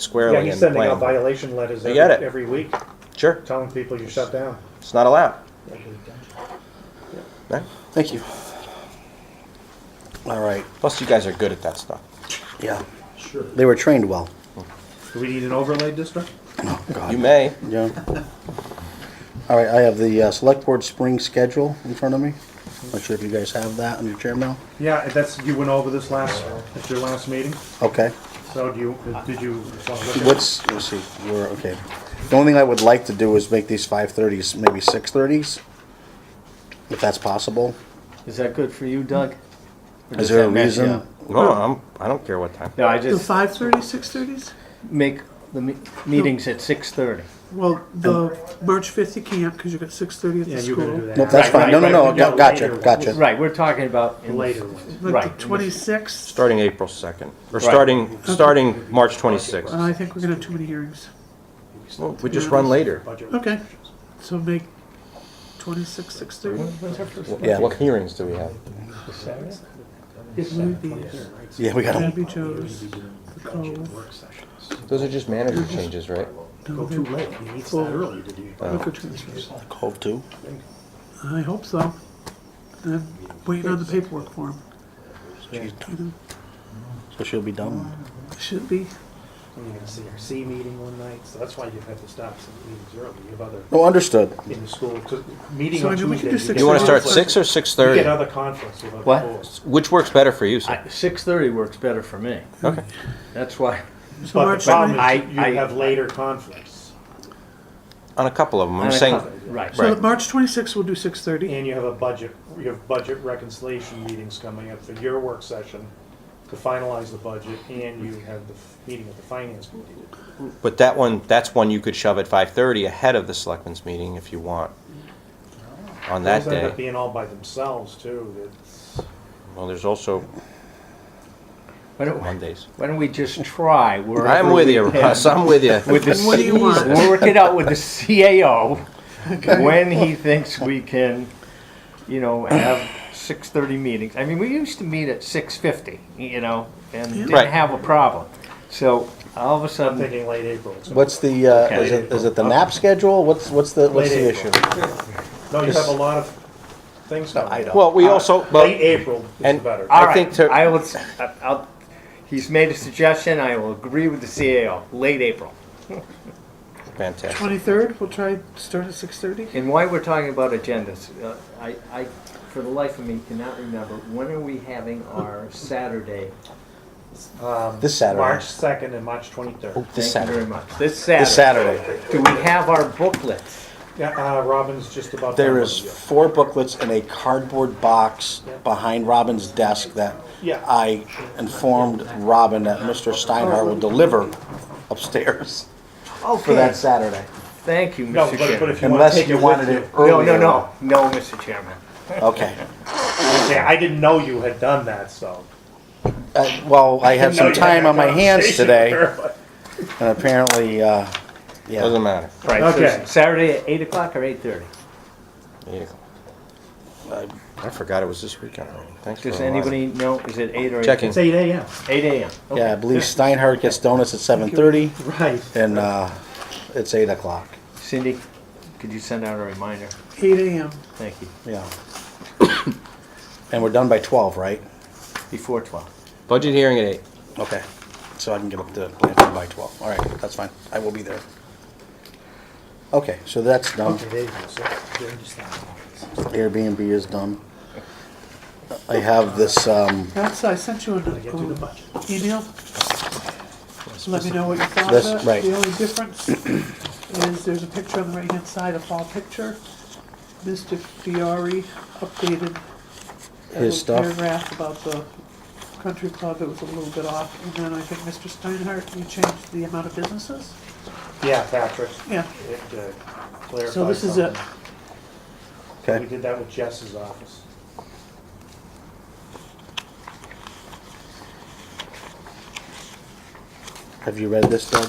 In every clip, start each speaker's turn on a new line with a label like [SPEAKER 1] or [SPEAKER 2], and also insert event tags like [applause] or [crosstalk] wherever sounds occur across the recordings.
[SPEAKER 1] Yeah,
[SPEAKER 2] squarely
[SPEAKER 1] he's
[SPEAKER 2] in the
[SPEAKER 1] sending out
[SPEAKER 2] plan.
[SPEAKER 1] violation letters
[SPEAKER 2] I
[SPEAKER 1] every,
[SPEAKER 2] get it.
[SPEAKER 1] every week,
[SPEAKER 2] Sure,
[SPEAKER 1] telling people you shut down.
[SPEAKER 2] it's not allowed. Right?
[SPEAKER 3] Thank you. All right,
[SPEAKER 2] Plus, you guys are good at that stuff.
[SPEAKER 3] yeah. Sure. They were trained well. Oh,
[SPEAKER 1] Do we need an overlay district?
[SPEAKER 2] You may.
[SPEAKER 3] Yeah. All right, I have the uh, select board spring schedule in front of me. Not sure if you guys have that on your chair mail.
[SPEAKER 1] Yeah, that's, you went over this last, at your last meeting,
[SPEAKER 3] Okay.
[SPEAKER 1] so do you, did you? wanna look at it?
[SPEAKER 3] What's, let's see, we're, okay. The only thing I would like to do is make these five thirties, maybe six thirties, if that's possible.
[SPEAKER 4] Is that good for you, Doug? Or
[SPEAKER 3] Is
[SPEAKER 4] does
[SPEAKER 3] there a
[SPEAKER 4] that mess you
[SPEAKER 3] reason?
[SPEAKER 4] up?
[SPEAKER 2] No, I'm, I don't care what time.
[SPEAKER 4] No, I
[SPEAKER 5] The
[SPEAKER 4] just
[SPEAKER 5] five thirty, six thirties?
[SPEAKER 4] make the me- meetings at six thirty.
[SPEAKER 5] Well, the March fifth you can't because you got six thirty at the
[SPEAKER 1] Yeah, you're gonna do
[SPEAKER 5] school.
[SPEAKER 1] that.
[SPEAKER 3] Nope, that's
[SPEAKER 4] Right,
[SPEAKER 3] fine. No, no,
[SPEAKER 4] right,
[SPEAKER 3] no,
[SPEAKER 1] right. Yeah,
[SPEAKER 3] got- gotcha,
[SPEAKER 1] later.
[SPEAKER 3] gotcha.
[SPEAKER 4] Right, we're talking about in-
[SPEAKER 1] Later one.
[SPEAKER 5] But
[SPEAKER 4] Right.
[SPEAKER 5] the twenty-sixth,
[SPEAKER 2] Starting April 2nd, or starting, starting March 26th.
[SPEAKER 5] Uh, I think we're gonna have too many hearings.
[SPEAKER 2] Well, We just run later.
[SPEAKER 1] Budget.
[SPEAKER 5] Okay, so make twenty-six, six thirty.
[SPEAKER 3] Yeah.
[SPEAKER 2] What hearings do we have?
[SPEAKER 5] It would be, it
[SPEAKER 3] Yeah, we got them.
[SPEAKER 5] be Joe's, the Cove,
[SPEAKER 2] Those are just manager changes, right?
[SPEAKER 1] Go too late, he needs that early to do.
[SPEAKER 5] liquor transfers.
[SPEAKER 3] Cove too.
[SPEAKER 5] I hope so. I'm waiting on the paperwork for him.
[SPEAKER 3] So she'll be done.
[SPEAKER 5] Should be.
[SPEAKER 1] And you had a CRC meeting one night, so that's why you have to stop some meetings early, you have other,
[SPEAKER 3] No, Oh, understood.
[SPEAKER 1] in the school, 'cause meeting
[SPEAKER 5] So, I
[SPEAKER 1] on
[SPEAKER 5] mean, we
[SPEAKER 1] Tuesday.
[SPEAKER 5] can do
[SPEAKER 1] get
[SPEAKER 5] six
[SPEAKER 2] You want to
[SPEAKER 1] other
[SPEAKER 2] start
[SPEAKER 5] Six.
[SPEAKER 2] 6 or
[SPEAKER 1] conflicts- You get
[SPEAKER 2] 6:30?
[SPEAKER 1] other conflicts with other
[SPEAKER 4] What?
[SPEAKER 1] boards.
[SPEAKER 2] Which works better for you, sir?
[SPEAKER 4] six thirty works better for me.
[SPEAKER 2] Okay.
[SPEAKER 4] That's why.
[SPEAKER 5] So
[SPEAKER 1] But
[SPEAKER 5] March
[SPEAKER 1] the problem
[SPEAKER 5] ninth,
[SPEAKER 1] is,
[SPEAKER 4] ninth.
[SPEAKER 1] you
[SPEAKER 4] I- I-
[SPEAKER 1] have later conflicts,
[SPEAKER 2] On a couple of them, I'm saying,
[SPEAKER 4] Right.
[SPEAKER 2] Right.
[SPEAKER 5] so March twenty-sixth, we'll do six thirty.
[SPEAKER 1] and you have a budget, you have budget reconciliation meetings coming up for your work session to finalize the budget, and you have the f- meeting with the finance committee.
[SPEAKER 2] but that one, that's one you could shove at 5:30 ahead of the selectmen's meeting if you want. On that
[SPEAKER 1] Those end up
[SPEAKER 2] day.
[SPEAKER 1] being all by themselves, too, that's,
[SPEAKER 2] Well, there's also
[SPEAKER 4] Why don't, why
[SPEAKER 2] Mondays.
[SPEAKER 4] don't we just try? wherever
[SPEAKER 2] I'm with
[SPEAKER 4] we
[SPEAKER 2] you,
[SPEAKER 4] can
[SPEAKER 2] Russ, I'm with you.
[SPEAKER 4] With the
[SPEAKER 5] What do you want?
[SPEAKER 4] CEO work it out with the CAO when he thinks we can, you know, have six thirty meetings. I mean, we used to meet at six fifty, you know, and didn't
[SPEAKER 2] Right.
[SPEAKER 4] have a problem. So all of a
[SPEAKER 1] I'm
[SPEAKER 4] sudden,
[SPEAKER 1] thinking late April. it's gonna-
[SPEAKER 3] What's the, uh,
[SPEAKER 4] Okay.
[SPEAKER 3] is it, is it the nap schedule? What's, what's the, what's the
[SPEAKER 1] Late
[SPEAKER 3] issue?
[SPEAKER 1] No, you have a lot of things coming.
[SPEAKER 3] I don't.
[SPEAKER 2] Well,
[SPEAKER 4] Uh,
[SPEAKER 2] we also,
[SPEAKER 1] Late
[SPEAKER 2] but
[SPEAKER 1] April is
[SPEAKER 2] and-
[SPEAKER 1] better.
[SPEAKER 2] I
[SPEAKER 4] All right.
[SPEAKER 2] think to-
[SPEAKER 4] I will. s- I- I'll, he's made a suggestion. I will agree with the CAO. Late April.
[SPEAKER 2] fantastic.
[SPEAKER 5] Twenty-third, we'll try start at six thirty.
[SPEAKER 4] And why we're talking about agendas? Uh, I, I, for the life of me, cannot remember when are we having our Saturday.
[SPEAKER 1] Um,
[SPEAKER 3] This Saturday.
[SPEAKER 1] March 2nd and March
[SPEAKER 3] Oh.
[SPEAKER 1] 23rd.
[SPEAKER 2] This
[SPEAKER 4] Thank you
[SPEAKER 2] Saturday.
[SPEAKER 4] very much. This Saturday.
[SPEAKER 3] This Saturday.
[SPEAKER 4] Do we have our booklets?
[SPEAKER 1] Yeah, uh, Robin's just about. done
[SPEAKER 3] There
[SPEAKER 1] with
[SPEAKER 3] is
[SPEAKER 1] you.
[SPEAKER 3] four booklets in a cardboard box behind Robin's desk that
[SPEAKER 1] Yeah.
[SPEAKER 3] I informed Robin that Mr. Steinhardt will deliver
[SPEAKER 1] [laughs]
[SPEAKER 3] upstairs
[SPEAKER 4] Oh,
[SPEAKER 3] for that Saturday.
[SPEAKER 4] Thank you,
[SPEAKER 1] No,
[SPEAKER 4] Mr.
[SPEAKER 1] but, but
[SPEAKER 4] Chairman.
[SPEAKER 1] if you want to
[SPEAKER 3] Unless
[SPEAKER 1] take it
[SPEAKER 3] you
[SPEAKER 1] with
[SPEAKER 3] wanted it
[SPEAKER 1] you.
[SPEAKER 4] No,
[SPEAKER 3] earlier.
[SPEAKER 4] no, no, no, Mr. Chairman.
[SPEAKER 3] Okay.
[SPEAKER 1] Okay, I didn't know you had done that, so.
[SPEAKER 3] Uh, Well, I had
[SPEAKER 1] Didn't know
[SPEAKER 3] some
[SPEAKER 1] you had
[SPEAKER 3] time
[SPEAKER 1] that
[SPEAKER 3] on my hands
[SPEAKER 1] conversation
[SPEAKER 3] today
[SPEAKER 1] with her.
[SPEAKER 3] and apparently, uh, yeah.
[SPEAKER 2] Doesn't matter.
[SPEAKER 4] Right.
[SPEAKER 1] Okay.
[SPEAKER 4] So Saturday at eight o'clock or eight thirty.
[SPEAKER 2] Eight o'clock. I I forgot it was this weekend already. Thanks for
[SPEAKER 4] Does
[SPEAKER 2] reminding me.
[SPEAKER 4] anybody know? Is it eight or
[SPEAKER 2] Checking.
[SPEAKER 1] It's 8 a.m.
[SPEAKER 4] Eight a.m. Okay.
[SPEAKER 3] Yeah, I believe Steinhardt gets donuts at seven thirty
[SPEAKER 1] Right.
[SPEAKER 3] and, uh, it's eight o'clock.
[SPEAKER 4] Cindy, could you send out a reminder?
[SPEAKER 5] Eight AM.
[SPEAKER 4] Thank you.
[SPEAKER 3] Yeah. [coughs] And we're done by twelve, right?
[SPEAKER 4] Before twelve.
[SPEAKER 2] Budget hearing at eight.
[SPEAKER 3] Okay, so I can get up to Blanford by twelve, all right, that's fine, I will be there. Okay, so that's done,
[SPEAKER 1] Okay, there you go. So, there you stand.
[SPEAKER 3] Airbnb is done. I have this, um,
[SPEAKER 5] That's, I sent you an
[SPEAKER 1] I get to the
[SPEAKER 5] um,
[SPEAKER 1] budget.
[SPEAKER 5] email. Let me know what you thought
[SPEAKER 3] That's
[SPEAKER 5] of it.
[SPEAKER 3] right.
[SPEAKER 5] The only difference is there's a picture on the right-hand side, a fall picture. Mr. Fiore updated a
[SPEAKER 3] His
[SPEAKER 5] little
[SPEAKER 3] stuff.
[SPEAKER 5] paragraph about the country club. It was a little bit off. And then I think Mr. Steinhardt, you changed the amount of businesses?
[SPEAKER 1] Yeah, Patrick.
[SPEAKER 5] Yeah.
[SPEAKER 1] It uh, clarified
[SPEAKER 5] So this is it.
[SPEAKER 1] something. We
[SPEAKER 3] okay,
[SPEAKER 1] did that with Jess's office.
[SPEAKER 3] have you read this, Doug?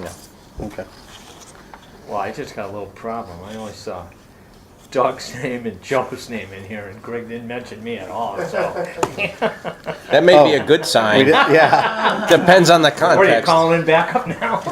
[SPEAKER 2] No.
[SPEAKER 3] Okay,
[SPEAKER 4] Well, I just got a little problem. I only saw Doug's [laughs] name and Joe's name in here, and Greg didn't mention me at all,
[SPEAKER 3] [laughs]
[SPEAKER 4] so.
[SPEAKER 2] That may be
[SPEAKER 3] Oh.
[SPEAKER 2] a good
[SPEAKER 3] We
[SPEAKER 2] sign.
[SPEAKER 3] did- yeah.
[SPEAKER 4] [laughs]
[SPEAKER 2] Depends on the context.
[SPEAKER 3] [laughs]
[SPEAKER 4] What, are you calling back up now?